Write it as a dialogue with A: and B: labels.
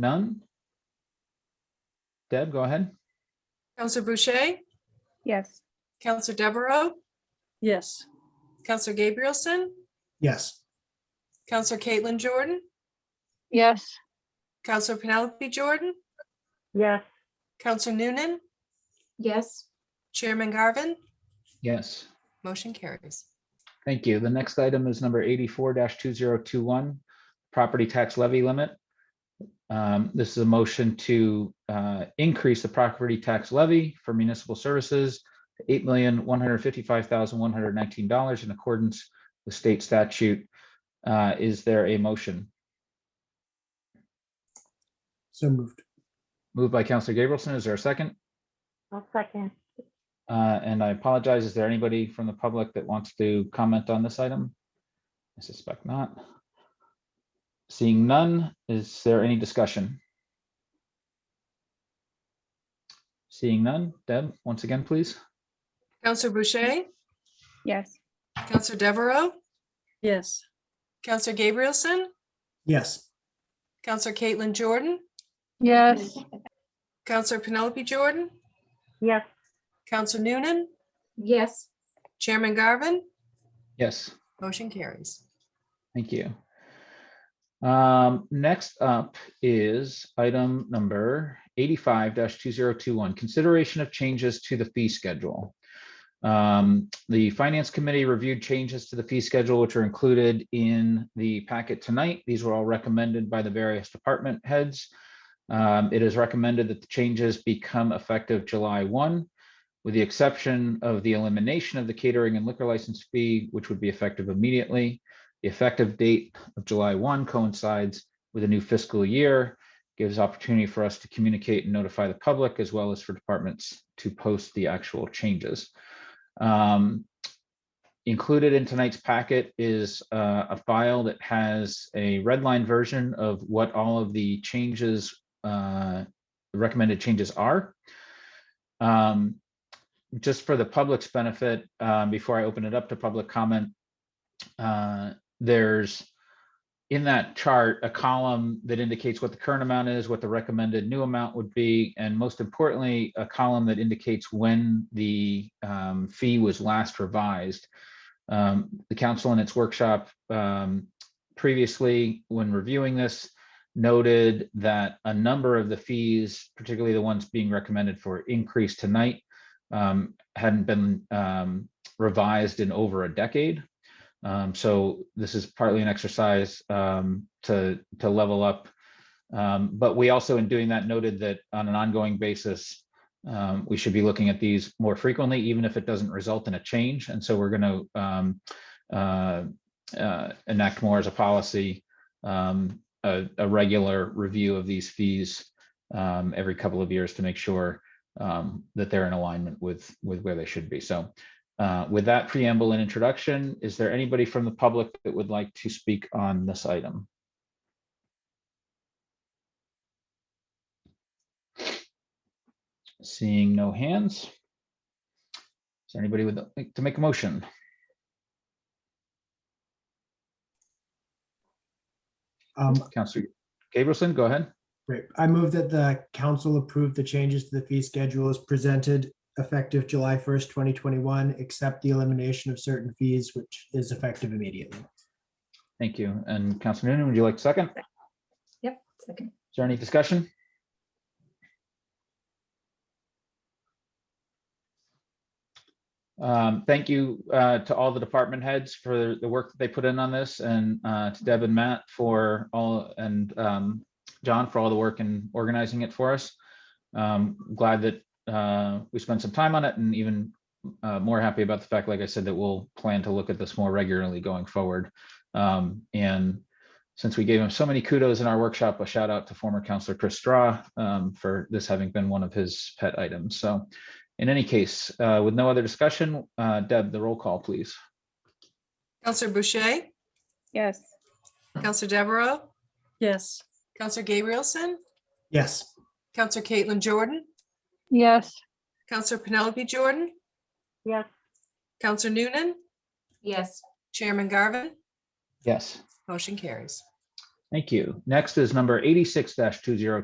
A: None? Deb, go ahead.
B: Counselor Boucher,
C: Yes.
B: Counselor Deveraux,
D: Yes.
B: Counselor Gabrielson,
E: Yes.
B: Counselor Caitlin Jordan,
C: Yes.
B: Counselor Penelope Jordan,
D: Yes.
B: Counselor Noonan,
F: Yes.
B: Chairman Garvin,
A: Yes,
B: motion carries.
A: thank you. The next item is number eighty-four two zero two one, property tax levy limit. Um, This is a motion to uh, increase the property tax levy for municipal services to eight million, one hundred fifty-five thousand, one hundred nineteen dollars in accordance with state statute. Uh, Is there a motion?
E: So moved.
A: Moved by Counselor Gabrielson, is there a second?
D: I'll second.
A: Uh, And I apologize, is there anybody from the public that wants to comment on this item? I suspect not. Seeing none, is there any discussion? Seeing none, Deb, once again, please.
B: Counselor Boucher,
C: Yes.
B: Counselor Deveraux,
D: Yes.
B: Counselor Gabrielson,
E: Yes.
B: Counselor Caitlin Jordan,
C: Yes.
B: Counselor Penelope Jordan,
D: Yes.
B: Counselor Noonan,
F: Yes.
B: Chairman Garvin,
A: Yes.
B: motion carries.
A: Thank you. Um, next up is item number eighty-five two zero two one, consideration of changes to the fee schedule. Um, the Finance Committee reviewed changes to the fee schedule, which are included in the packet tonight. These were all recommended by the various department heads. Um, it is recommended that the changes become effective July one, with the exception of the elimination of the catering and liquor license fee, which would be effective immediately. The effective date of July 1 coincides with a new fiscal year, gives opportunity for us to communicate and notify the public as well as for departments to post the actual changes. Um, Included in tonight's packet is uh, a file that has a red line version of what all of the changes, uh, recommended changes are. Um, Just for the public's benefit, um, before I open it up to public comment, uh, there's in that chart, a column that indicates what the current amount is, what the recommended new amount would be, and most importantly, a column that indicates when the um, fee was last revised. Um, The council in its workshop um, previously, when reviewing this, noted that a number of the fees, particularly the ones being recommended for increase tonight, um, hadn't been um, revised in over a decade. Um, so this is partly an exercise um, to to level up. Um, but we also, in doing that, noted that on an ongoing basis, um, we should be looking at these more frequently, even if it doesn't result in a change. And so we're going to um, uh, uh, enact more as a policy um, a, a regular review of these fees um, every couple of years to make sure um, that they're in alignment with with where they should be. So uh, With that preamble and introduction, is there anybody from the public that would like to speak on this item? Seeing no hands. Is there anybody would like to make a motion?
E: Um,
A: Counselor Gabrielson, go ahead.
E: great. I move that the council approve the changes to the fee schedule as presented effective July first, twenty twenty-one, except the elimination of certain fees, which is effective immediately.
A: Thank you. And Counselor Noonan, would you like second? Is
F: Yep. Second.
A: there any discussion? Um, Thank you uh, to all the department heads for the work that they put in on this and uh, to Deb and Matt for all and um, John for all the work in organizing it for us. Um, Glad that uh, we spent some time on it and even uh, more happy about the fact, like I said, that we'll plan to look at this more regularly going forward. Um, And since we gave him so many kudos in our workshop, a shout out to former counselor Chris Straw um, for this having been one of his pet items. So in any case, uh, with no other discussion, uh, Deb, the roll call, please.
B: Counselor Boucher,
C: Yes.
B: Counselor Deveraux,
D: Yes.
B: Counselor Gabrielson,
E: Yes.
B: Counselor Caitlin Jordan,
C: Yes.
B: Counselor Penelope Jordan,
D: Yes.
B: Counselor Noonan,
F: Yes.
B: Chairman Garvin,
A: Yes.
B: motion carries.
A: Thank you. Next is number eighty-six two zero